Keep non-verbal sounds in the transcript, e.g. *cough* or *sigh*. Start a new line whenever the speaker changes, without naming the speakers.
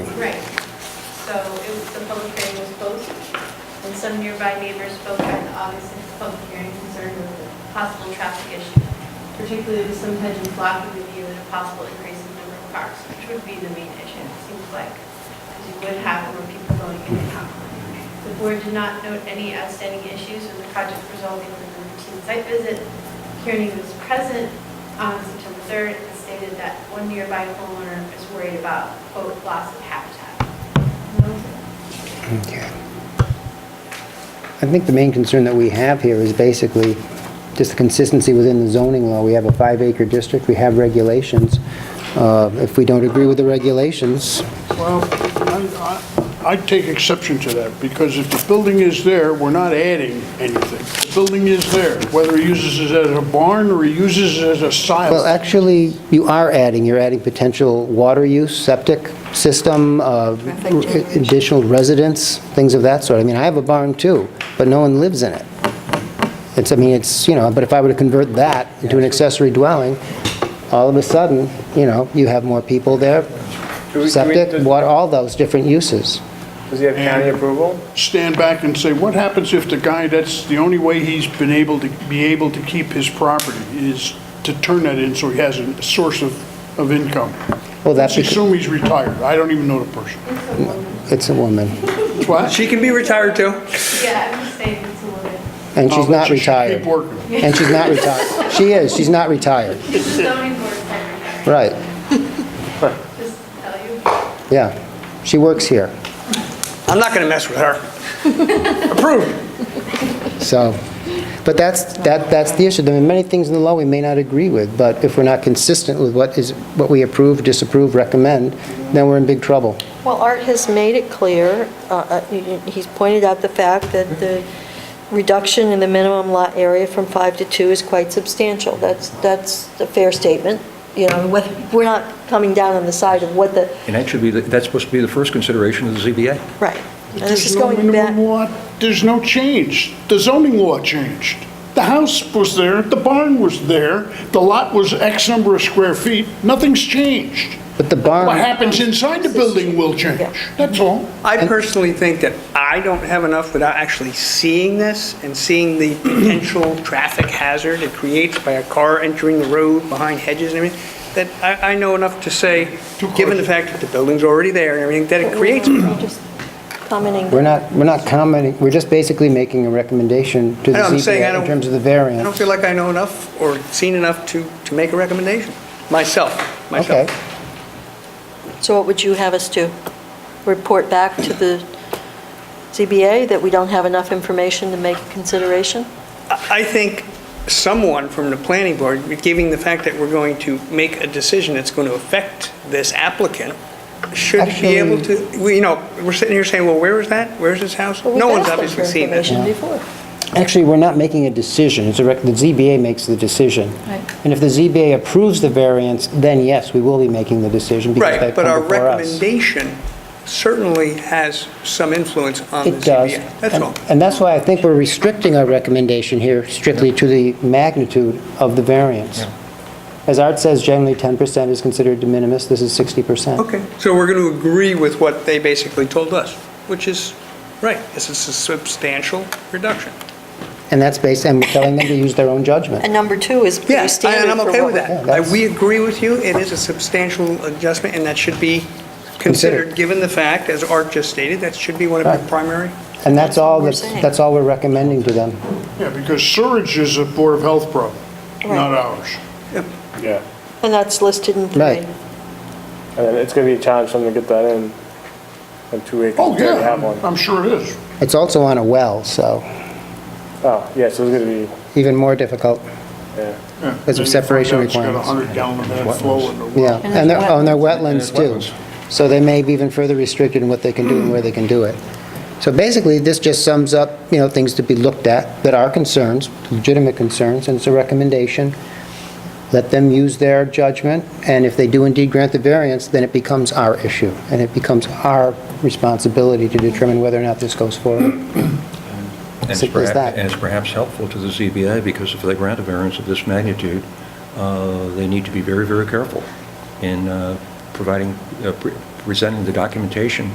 the public hearing was closed, and some nearby neighbors spoke at the August 6th public hearing concerned with the possible traffic issue, particularly with some hedge and blocking the view and a possible increase in number of cars, which would be the main issue, it seems like, because you would have more people going in and out. The board did not note any outstanding issues with the project resulting in a routine site visit. Kearney was present on September 3rd and stated that one nearby homeowner is worried about, quote, loss of habitat.
Okay. I think the main concern that we have here is basically just the consistency within the zoning law. We have a five-acre district, we have regulations. Uh, If we don't agree with the regulations,
Well, I- I- I'd take exception to that, because if the building is there, we're not adding anything. The building is there, whether he uses it as a barn or he uses it as a
well,
silo.
actually, you are adding, you're adding potential water use, septic system, uh, additional residence, things of that sort. I mean, I have a barn too, but no one lives in it. It's, I mean, it's, you know, but if I were to convert that into an accessory dwelling, all of a sudden, you know, you have more people there,
Do we- do we-
septic,
does-
what, all those different uses.
Does he have county approval?
Stand back and say, what happens if the guy, that's the only way he's been able to, be able to keep his property, is to turn that in so he has a source of, of income?
Well, that's,
Let's assume he's retired, I don't even know the person.
it's a woman,
What?
She can be retired too.
Yeah, I'm just saying it's a little bit.
and she's
Oh,
not
she should
retired.
Keep working.
And she's not retired. She is, she's not retired.
Zoning board secretary,
Right,
*laughs* just to tell you.
yeah. She works here,
I'm not going to mess with *laughs* her. Approved.
so. But that's, that, that's the issue. There are many things in the law we may not agree with, but if we're not consistent with what is, what we approve, disapprove, recommend, then we're in big trouble.
Well, Art has made it clear, uh, uh, y- y- he's pointed out the fact that the reduction in the minimum lot area from five to two is quite substantial. That's, that's a fair statement, you know, whether- we're not coming down on the side of what the,
And that should be, the- that's supposed to be the first consideration of the ZBA.
right. And this
There's
is
no
going back,
minimum lot, there's no change. The zoning law changed. The house was there, the barn was there, the lot was X number of square feet, nothing's changed.
But the
What
barn,
happens inside the building will change, that's all.
I personally think that I don't have enough without actually seeing this and seeing the potential traffic hazard it creates by a car entering the road behind hedges and everything, that I, I know enough to say, given the fact that the building's already there and everything, that it creates a problem.
just commenting.
we're not, we're not commenting, we're just basically making a recommendation to the
I know, I'm saying I
ZBA in
don't-
terms of the
I don't
variance.
feel like I know enough or seen enough to, to make a recommendation, myself,
Okay.
myself.
So what would you have us do? Report back to the ZBA that we don't have enough information to make a consideration?
I I think someone from the planning board, giving the fact that we're going to make a decision that's going to affect this applicant, should be able to, we- you know, we're sitting here saying, well, where is that? Where's this house?
Well, we've
No one's
asked them
obviously
for
seen this.
information before.
Actually, we're not making a decision, it's a, rec- the ZBA makes the decision.
Right.
And if the ZBA approves the variance, then yes, we will be making the decision because
Right,
they've
but our
come before us.
recommendation certainly has some influence on the
It does.
ZBA. That's
And-
all.
And that's why I think we're restricting our recommendation here strictly to the magnitude of the variance. As Art says, generally 10% is considered de minimis, this is 60%.
Okay, so we're going to agree with what they basically told us, which is, right, this is a substantial reduction.
And that's based, and we're telling them to use their own judgment.
And number two is pretty
Yes,
standard
and I'm
for
okay
what
with
we-
Yeah,
that.
that's-
I- We agree with you, it is a substantial adjustment, and that should be
Considered.
considered, given the fact, as Art just stated, that should be one of
Right.
our primary.
And that's all,
we're
that's
saying.
that's all we're recommending to them.
Yeah, because sewage is a Board of Health problem, not
Right.
ours.
Yeah.
And that's listed in
Right.
three.
And then it's gonna be a challenge for them to get that in, in two acres.
Oh,
They already have
yeah,
one.
I'm sure it is.
It's also on a well, so
Oh, yeah, so it's gonna be,
even more difficult.
yeah.
Yeah.
Because of
Then you
separation
find out
requirements.
It's got a 100 gallon a minute flow in the well.
Yeah,
And
and they're,
there's
oh, and they're
wetlands.
wetlands
And there's
too. So they may be even further restricted in what they can do and where they can do it. So basically, this just sums up, you know, things to be looked at that are concerns, legitimate concerns, and it's a recommendation. Let them use their judgment, and if they do indeed grant the variance, then it becomes our issue, and it becomes our responsibility to determine whether or not this goes forward.
And it's
Simple as
perha-
that.
And it's perhaps helpful to the ZBA, because if they grant a variance of this magnitude, uh, they need to be very, very careful in uh, providing, uh, pre- presenting the documentation